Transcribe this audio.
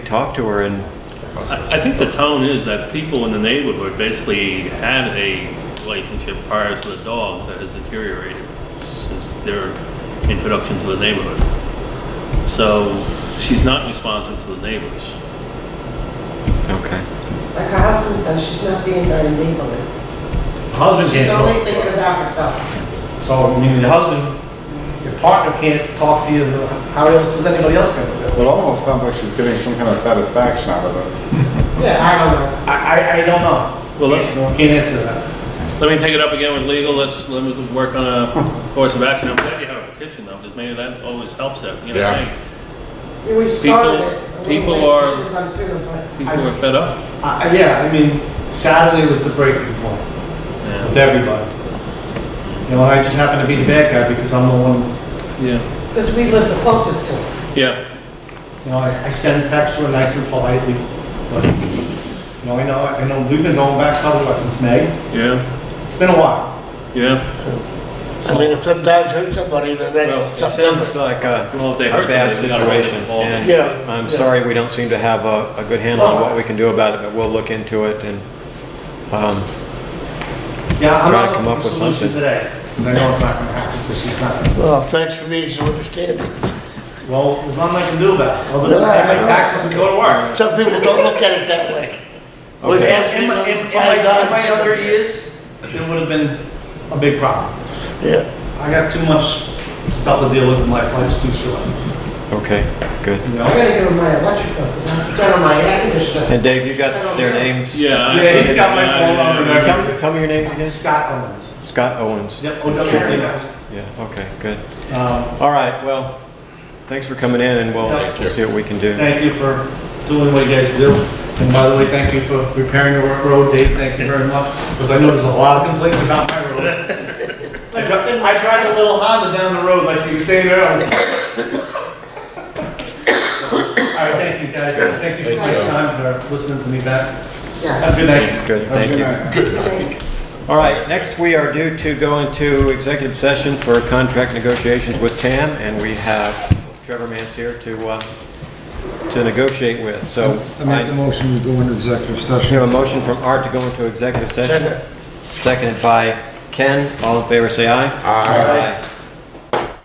talk to her and, I I think the tone is that people in the neighborhood basically had a relationship prior to the dogs that has deteriorated since their introduction to the neighborhood. So she's not responsive to the neighbors. okay. Like her husband says, she's not being very neighborly. Husband She's can't only talk. thinking about herself. So, I mean, the husband, your partner can't talk to you, how else does anybody else gonna do it? It almost sounds like she's getting some kind of satisfaction out of this. Yeah, I don't know. I, I, I don't know. Well, let's- Can't answer that. Let me take it up again with legal, let's, let me work on a course of action. I'm glad you have a petition though, because maybe that always helps that, you know, Yeah. hey, Yeah, We started it. people We are- should've done sooner, but- people are fed up. I, I- yeah, I mean, Saturday was the breaking point with Yeah. everybody. You know, I just happened to be the bad guy because I'm the one, Yeah, Because we live the closest to her. yeah, you know, I, I sent a text to her nice and politely, but, you know, I know, I know, we've been going back probably, what, since May? yeah, It's been a while. yeah. I mean, if some dogs hurt somebody, then Well, that's it something different. It's like a, uh, Well, if they a hurt bad somebody, we gotta get situation. involved. and Yeah, I'm yeah. sorry, we don't seem to have a, a good handle on what we can do about it, but we'll look into it and, um, Yeah, I'm Try to not come up looking for a with solution something. today, because I know it's not gonna happen, because she's not. Well, thanks for being so understanding. Well, there's nothing I can do about it, other than Yeah, I make I know. taxes and go to work. Some people don't look at it that way. We're Okay. supposed to In be my, in looking in at my, in my dogs. other years, it would have been a big problem. Yeah, I got too much stuff to deal with in life, life's too short, okay, good. you I'm know? gonna give her my electric bill, because I have to turn on my air conditioner. And Dave, you got their names? Yeah. I- Yeah, he's got my phone number and everything. Tell, tell me your names again. Scott Owens. Scott Owens. Yep, O W N S. Yeah, okay, good. Um, All right, well, thanks for coming in and we'll, Thank we'll see what we can do. Thank you for doing what you guys do. And by the way, thank you for repairing the road, Dave, thank you very much, because I know there's a lot of complaints about my road. I dri- I drive a little Honda down the road like you were saying earlier. All right, thank you, guys. Thank you for your time, for listening to me back. Have a Yes. good night. Good, thank you. All right, next we are due to go into executive session for contract negotiations with TAM, and we have Trevor Mance here to, uh, to negotiate with, so. I make the motion to go into executive We have session. a motion from Art to go into executive session, seconded by Ken. All in favor, say aye. Aye.